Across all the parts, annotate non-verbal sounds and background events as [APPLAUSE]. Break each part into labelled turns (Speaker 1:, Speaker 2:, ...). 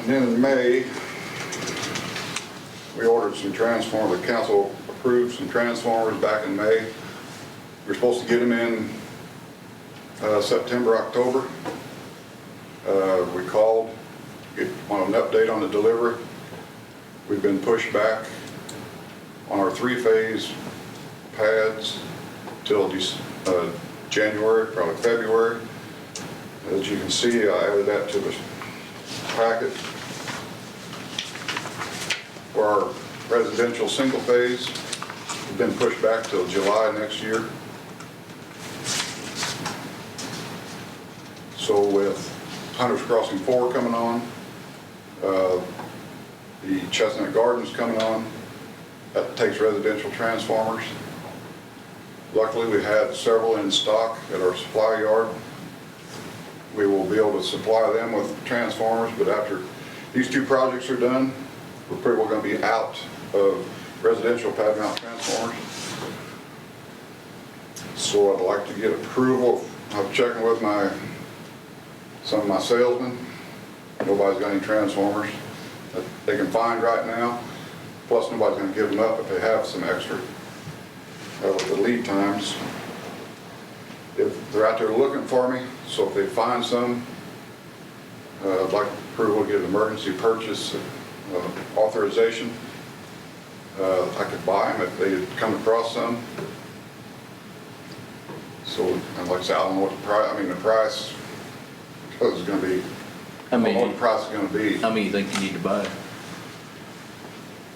Speaker 1: And then in May, we ordered some transformers, the council approved some transformers back in May. We were supposed to get them in uh, September, October. Uh, We called, get- wanted an update on the delivery. We've been pushed back on our three-phase pads till Dec- uh, January, probably February. As you can see, I added that to the packet for our residential single phase. It's Been pushed back till July next year. So with Hunter's Crossing 4 coming on, uh, the Chestnut Gardens coming on, that takes residential transformers. Luckily, we had several in stock at our supply yard. We will be able to supply them with transformers, but after these two projects are done, we're pretty well gonna be out of residential pad mount transformers. So I'd like to get approval, I'm checking with my, some of my salesmen, nobody's got any transformers that they can find right now, plus nobody's gonna give them up if they have some extra. Uh, with the lead times, if they're out there looking for me, so if they find some, uh, I'd like approval to get an emergency purchase uh, authorization. Uh, I could buy them if they come across some. So, and like I said, I don't know what the price, I mean, the price is gonna be, I don't
Speaker 2: How
Speaker 1: know what
Speaker 2: many,
Speaker 1: the price is gonna be.
Speaker 2: how many you think you need to buy?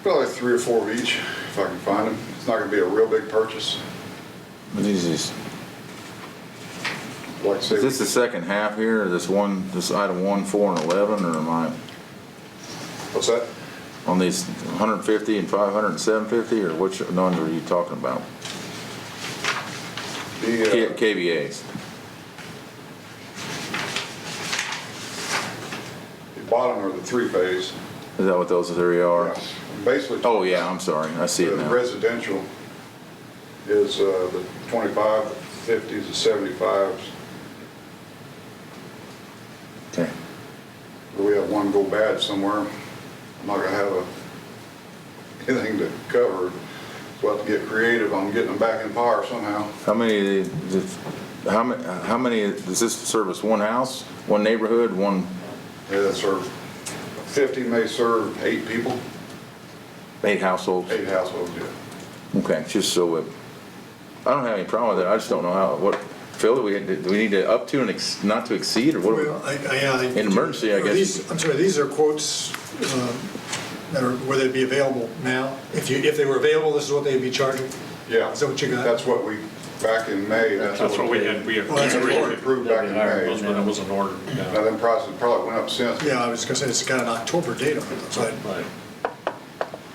Speaker 1: Probably three or four of each, if I can find them. It's not gonna be a real big purchase.
Speaker 3: This is,
Speaker 1: Like I
Speaker 3: is this
Speaker 1: say,
Speaker 3: the second half here, or this one, this item one, four, and eleven, or am I
Speaker 1: what's that?
Speaker 3: on these hundred and fifty and five hundred and seven fifty, or which numbers are you talking about? K-
Speaker 1: The, uh,
Speaker 3: KVAs,
Speaker 1: the bottom are the three phase.
Speaker 3: is that what those three are?
Speaker 1: Basically.
Speaker 3: Oh, yeah, I'm sorry, I see
Speaker 1: The
Speaker 3: it now.
Speaker 1: residential is uh, the 25, the 50s, the 75s.
Speaker 3: Okay.
Speaker 1: We have one go bad somewhere. I'm not gonna have a, [LAUGHS] anything to cover. So I have to get creative on getting them back in power somehow.
Speaker 3: How many, is it- how many, how many, does this service one house, one neighborhood, one,
Speaker 1: Yeah, that serve, 50 may serve eight people,
Speaker 3: eight households?
Speaker 1: eight households, yeah.
Speaker 3: Okay, just so it, I don't have any problem with it, I just don't know how, what, Phil, do we, do we need to up to and ex, not to exceed, or what? do we-
Speaker 4: Well, I- I- yeah, I think-
Speaker 3: An emergency, I
Speaker 4: Are
Speaker 3: guess.
Speaker 4: these- I'm sorry, these are quotes um, that are, where they'd be available now? If you, if they were available, this is what they'd be charging?
Speaker 1: Yeah.
Speaker 4: Is that what you got?
Speaker 1: That's what we, back in May.
Speaker 5: That's what we had, we had.
Speaker 4: Well, that's
Speaker 1: That's what we
Speaker 4: important.
Speaker 1: approved back in
Speaker 5: Those
Speaker 1: May.
Speaker 5: were- That was an order. yeah.
Speaker 1: Now, them prices probably went up since,
Speaker 4: Yeah, I was gonna say, it's got an October date on it, so I-
Speaker 5: Right,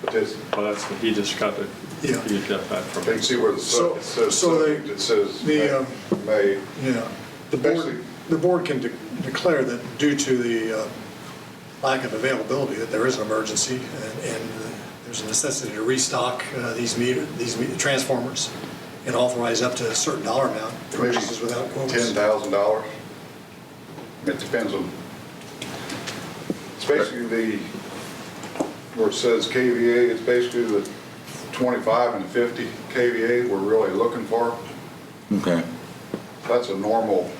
Speaker 1: but this,
Speaker 5: well, that's, he just got the, he
Speaker 4: Yeah.
Speaker 5: got that from.
Speaker 1: They can see where the
Speaker 4: So-
Speaker 1: sub, it says,
Speaker 4: so they-
Speaker 1: subject, it says
Speaker 4: the, um,
Speaker 1: May.
Speaker 4: yeah. The
Speaker 1: Basically-
Speaker 4: board, the board can de- declare that due to the uh, lack of availability, that there is an emergency and- and uh, there's a necessity to restock uh, these meter, these me- transformers and authorize up to a certain dollar amount purchases without quotes.
Speaker 1: Ten thousand dollars. It depends on, it's basically the, where it says KVA, it's basically the twenty-five and fifty KVA we're really looking for.
Speaker 3: Okay,
Speaker 1: That's a normal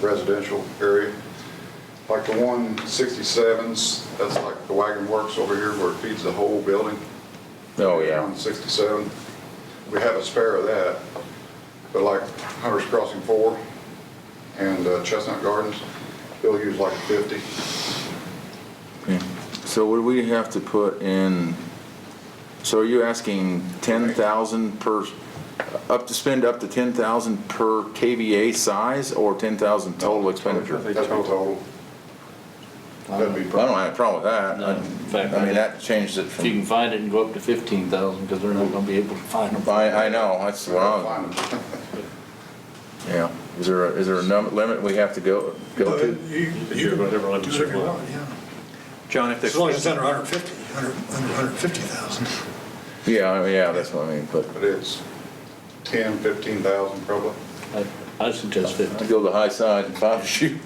Speaker 1: residential area. Like the one sixty-sevens, that's like the wagon works over here where it feeds the whole building.
Speaker 3: oh, yeah.
Speaker 1: On 67. We have a spare of that, but like Hunter's Crossing 4 and uh, Chestnut Gardens, they'll use like 50.
Speaker 3: Okay. So would we have to put in, so are you asking ten thousand per, up to spend up to ten thousand per KVA size or ten thousand total expenditure?
Speaker 5: They
Speaker 1: That'd be
Speaker 5: total.
Speaker 1: total. That'd be,
Speaker 3: I don't have a problem with that.
Speaker 2: No, in fact,
Speaker 3: I- I mean, that changes it
Speaker 2: If you
Speaker 3: from,
Speaker 2: can find it and go up to fifteen thousand, because they're not gonna be able to find them.
Speaker 3: I, I know, that's what I,
Speaker 1: fine.
Speaker 3: yeah. Is there, a- is there a number, limit we have to go, go
Speaker 4: But
Speaker 3: to?
Speaker 4: You
Speaker 5: can
Speaker 4: you
Speaker 5: do whatever
Speaker 4: can
Speaker 5: limits
Speaker 4: do
Speaker 5: you
Speaker 4: whatever you
Speaker 5: want.
Speaker 4: want, yeah.
Speaker 6: John, if
Speaker 4: As
Speaker 6: the,
Speaker 4: long as it's under 150, 100 under 150,000.
Speaker 3: Yeah, I mean, yeah, that's what I mean, but
Speaker 1: But it's 10, 15,000 probably.
Speaker 2: I- I suggest fifteen.
Speaker 3: to go to the high side and find a shoe.